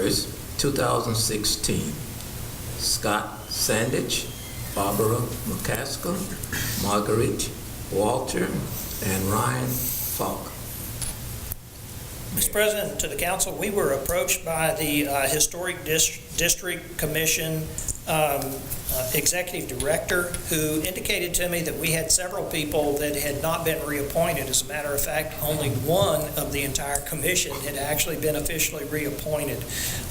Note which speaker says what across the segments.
Speaker 1: 1st, 2016. Scott Sandich, Barbara McCaskill, Marguerite Walter, and Ryan Falk.
Speaker 2: Mr. President, to the council, we were approached by the uh, Historic Dis- District Commission um, uh, Executive Director, who indicated to me that we had several people that had not been reappointed. As a matter of fact, only one of the entire commission had actually been officially reappointed.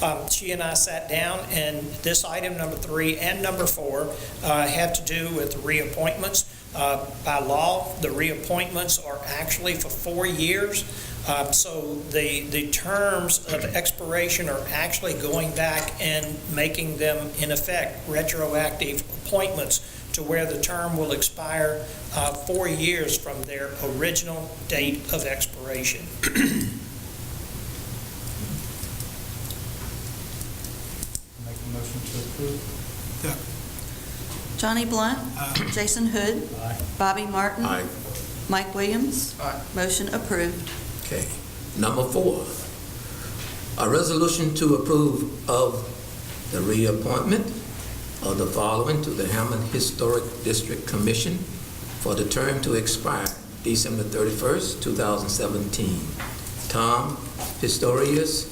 Speaker 2: Um, She and I sat down, and this item, number three and number four, uh, have to do with reappointments. Uh, By law, the reappointments are actually for four years. Uh, So the, the terms of expiration are actually going back and making them, in effect, retroactive appointments to where the term will expire uh, four years from their original date of expiration.
Speaker 3: Make a motion to approve.
Speaker 4: Johnny Blunt. Jason Hood.
Speaker 3: Aye.
Speaker 4: Bobby Martin.
Speaker 1: Aye.
Speaker 4: Mike Williams.
Speaker 3: Aye.
Speaker 4: Motion approved.
Speaker 1: Okay. Number four, a resolution to approve of the reappointment of the following to the Hammond Historic District Commission for the term to expire December 31st, 2017. Tom Historius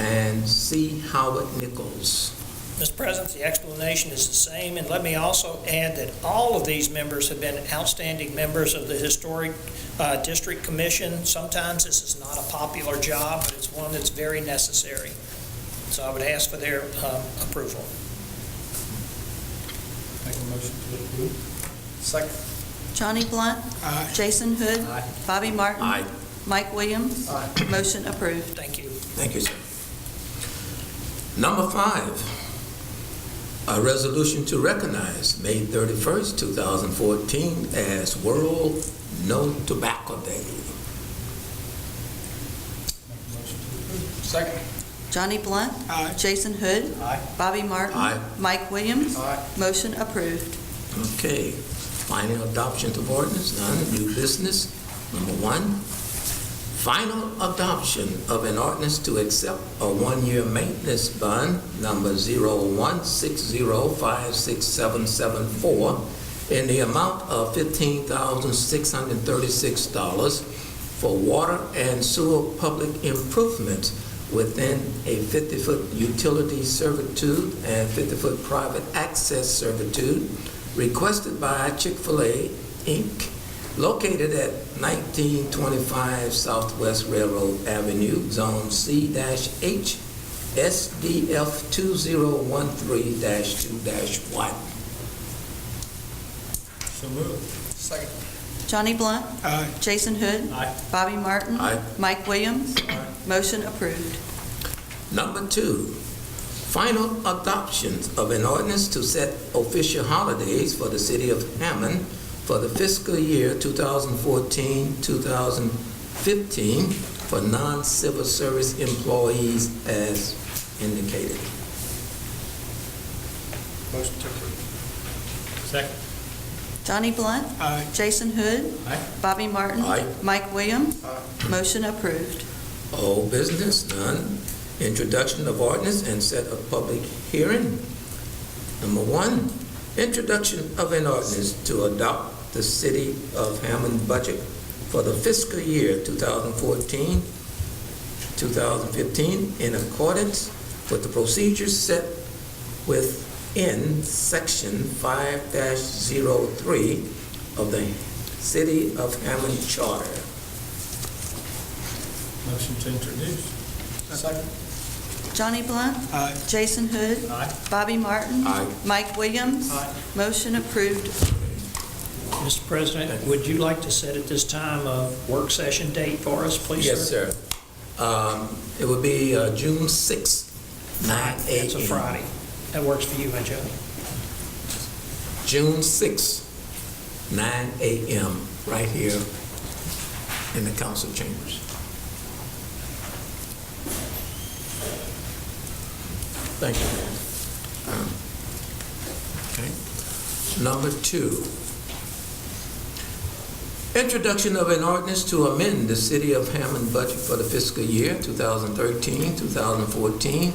Speaker 1: and C. Howard Nichols.
Speaker 2: Mr. President, the explanation is the same, and let me also add that all of these members have been outstanding members of the Historic uh, District Commission. Sometimes this is not a popular job, but it's one that's very necessary. So I would ask for their um, approval.
Speaker 3: Make a motion to approve. Second.
Speaker 4: Johnny Blunt.
Speaker 3: Aye.
Speaker 4: Jason Hood.
Speaker 3: Aye.
Speaker 4: Bobby Martin.
Speaker 1: Aye.
Speaker 4: Mike Williams. Motion approved.
Speaker 2: Thank you.
Speaker 1: Thank you, sir. Number five, a resolution to recognize May 31st, 2014 as World No Tobacco Day.
Speaker 3: Make a motion to approve. Second.
Speaker 4: Johnny Blunt.
Speaker 3: Aye.
Speaker 4: Jason Hood.
Speaker 3: Aye.
Speaker 4: Bobby Martin.
Speaker 1: Aye.
Speaker 4: Mike Williams.
Speaker 3: Aye.
Speaker 4: Motion approved.
Speaker 1: Okay, final adoption of ordinance, none, new business. Number one, final adoption of an ordinance to accept a one-year maintenance bond, number 0160567774, in the amount of $15,636 for water and sewer public improvements within a 50-foot utility servitude and 50-foot private access servitude requested by Chick-fil-A Inc., located at 1925 Southwest Railroad Avenue, Zone C-H, SDF 2013-2-1.
Speaker 3: So moved. Second.
Speaker 4: Johnny Blunt.
Speaker 3: Aye.
Speaker 4: Jason Hood.
Speaker 3: Aye.
Speaker 4: Bobby Martin.
Speaker 1: Aye.
Speaker 4: Mike Williams.
Speaker 3: Aye.
Speaker 4: Motion approved.
Speaker 1: Number two, final adoption of an ordinance to set official holidays for the city of Hammond for the fiscal year 2014-2015 for non-civil service employees as indicated.
Speaker 3: Motion to approve. Second.
Speaker 4: Johnny Blunt.
Speaker 3: Aye.
Speaker 4: Jason Hood.
Speaker 3: Aye.
Speaker 4: Bobby Martin.
Speaker 1: Aye.
Speaker 4: Mike Williams. Motion approved.
Speaker 1: Old business, none. Introduction of ordinance and set of public hearing. Number one, introduction of an ordinance to adopt the city of Hammond budget for the fiscal year 2014, 2015 in accordance with the procedures set within section 5-03 of the city of Hammond charter.
Speaker 3: Motion to introduce. Second.
Speaker 4: Johnny Blunt.
Speaker 3: Aye.
Speaker 4: Jason Hood.
Speaker 3: Aye.
Speaker 4: Bobby Martin.
Speaker 1: Aye.
Speaker 4: Mike Williams.
Speaker 3: Aye.
Speaker 4: Motion approved.
Speaker 2: Mr. President, would you like to set at this time a work session date for us, please, sir?
Speaker 1: Yes, sir. Um, It would be uh, June 6th, 9 a.m.
Speaker 2: It's a Friday. That works for you, Joe.
Speaker 1: June 6th, 9 a.m., right here in the council chambers. Thank you. Um, Okay. Number two, Introduction of an ordinance to amend the City of Hammond budget for the fiscal year 2013, 2014,